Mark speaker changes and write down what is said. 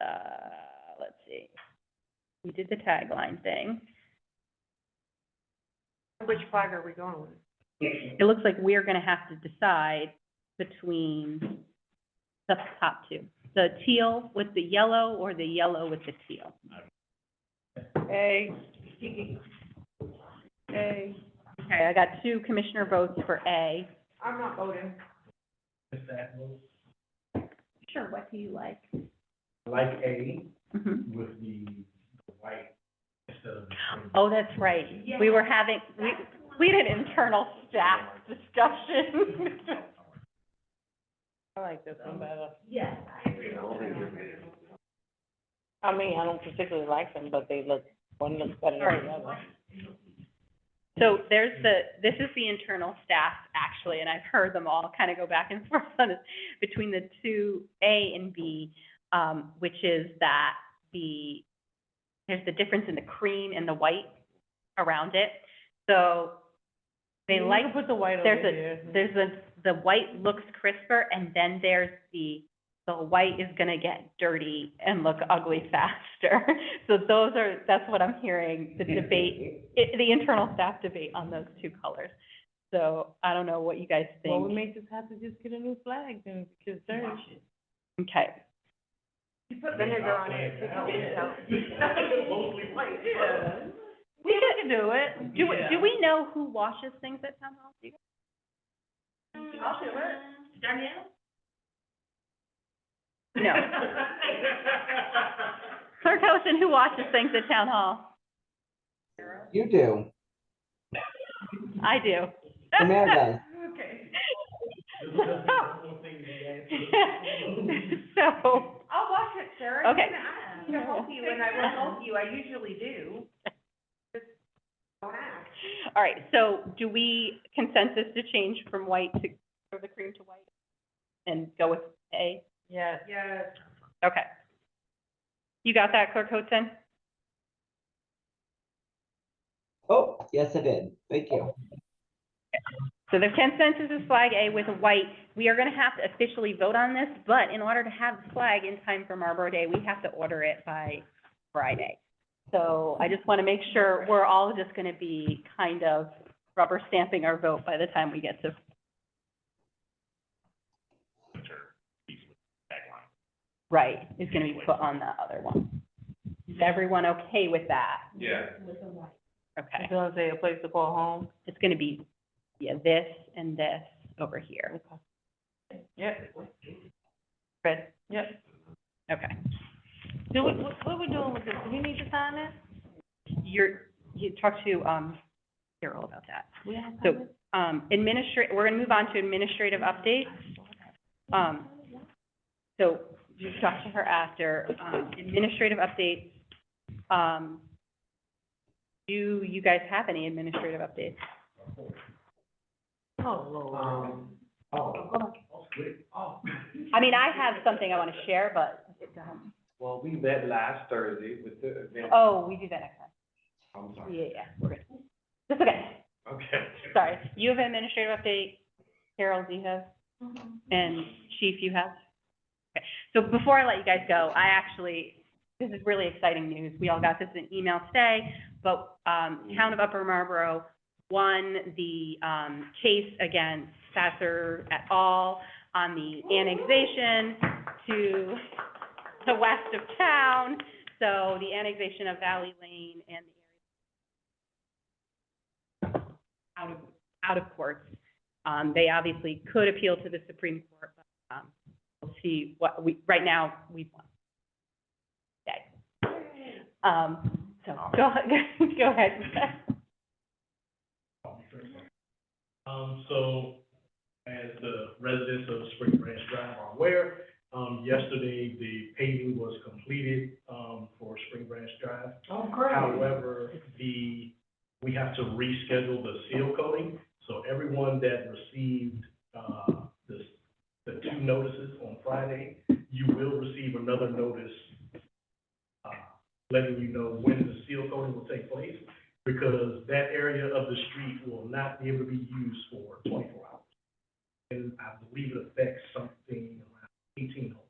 Speaker 1: uh, let's see. We did the tagline thing.
Speaker 2: Which flag are we going with?
Speaker 1: It looks like we're gonna have to decide between the top two, the teal with the yellow or the yellow with the teal.
Speaker 2: A. A.
Speaker 1: Okay, I got two commissioner votes for A.
Speaker 2: I'm not voting.
Speaker 1: Sure, what do you like?
Speaker 3: Like A
Speaker 1: Mhm.
Speaker 3: with the the white instead of the green.
Speaker 1: Oh, that's right. We were having, we, we had an internal staff discussion.
Speaker 2: I like this one better. Yes, I agree. I mean, I don't particularly like them, but they look, one looks better than the other.
Speaker 1: So there's the, this is the internal staff, actually, and I've heard them all kind of go back and forth on this, between the two, A and B, um, which is that the, there's the difference in the cream and the white around it. So they like,
Speaker 2: to put the white
Speaker 1: there's a- there's the, the white looks crisper, and then there's the, the white is gonna get dirty and look ugly faster. So those are, that's what I'm hearing, the debate, i- the internal staff debate on those two colors. So I don't know what you guys
Speaker 2: Well, we
Speaker 1: think.
Speaker 2: may just have to just get a new flag then, because they're.
Speaker 1: Okay,
Speaker 2: You put
Speaker 3: vinegar on it, it helps,
Speaker 2: We can do it.
Speaker 1: do, we- do we know who washes things at town hall? Do you-
Speaker 2: I'll do it. Danielle?
Speaker 1: No. Clerk Hosen, who washes things at town hall?
Speaker 4: You do.
Speaker 1: I do.
Speaker 4: Amanda does.
Speaker 2: Okay.
Speaker 3: This is just the whole thing we had.
Speaker 1: So.
Speaker 2: I'll watch it, Sarah.
Speaker 1: Okay.
Speaker 2: You can ask. I'll help you, and I will help you, I usually do. Just Don't ask.
Speaker 1: All right, so do we consensus to change from white to, or the cream to white? And go with A?
Speaker 2: Yes. Yes.
Speaker 1: Okay. You got that, Clerk Hotzen?
Speaker 4: Oh, yes, I did. Thank you.
Speaker 1: So the consensus is flag A with white. We are gonna have to officially vote on this, but in order to have the flag in time for Marlboro Day, we have to order it by Friday. So I just wanna make sure we're all just gonna be kind of rubber stamping our vote by the time we get to. Right, is gonna be put on the other one. Is everyone okay with that?
Speaker 3: Yeah.
Speaker 1: Okay.
Speaker 2: You want to say a place to call home?
Speaker 1: It's gonna be, yeah, this and this over here.
Speaker 2: Yep.
Speaker 1: Good,
Speaker 2: Yep.
Speaker 1: okay.
Speaker 2: Do we, what, what we doing with this? Do we need to sign it?
Speaker 1: You're, you talked to, um, Carol about that.
Speaker 2: We have
Speaker 1: So-
Speaker 2: time?
Speaker 1: Um, administra- we're gonna move on to administrative updates. Um, so you talked to her after, um, administrative updates. Um, do you guys have any administrative updates?
Speaker 2: Oh, Lord.
Speaker 3: Um, oh, oh, good. Oh.
Speaker 1: I mean, I have something I wanna share, but, um,
Speaker 3: Well, we met last Thursday with the event.
Speaker 1: oh, we do that next time.
Speaker 3: I'm
Speaker 1: Yeah,
Speaker 3: sorry.
Speaker 1: yeah, we're good. That's okay.
Speaker 3: Okay.
Speaker 1: Sorry, you have an administrative update, Carol, do you have? And Chief, you have? Okay, so before I let you guys go, I actually, this is really exciting news. We all got this in email today, but, um, Town of Upper Marlboro won the, um, case against Sasser et al. on the annexation to the west of town. So the annexation of Valley Lane and the area out of, out of courts. Um, they obviously could appeal to the Supreme Court, but, um, we'll see what, we, right now, we've won. Okay. Um, so, go, go ahead.
Speaker 3: Um, so, as the residents of Spring Branch Drive are aware, um, yesterday, the paving was completed, um, for Spring Branch Drive.
Speaker 2: Oh, great.
Speaker 3: However, the, we have to reschedule the seal coating, so everyone that received, uh, this, the two notices on Friday, you will receive another notice, uh, letting you know when the seal coating will take place, because that area of the street will not be able to be used for twenty-four hours. And I believe it affects something around eighteen homes.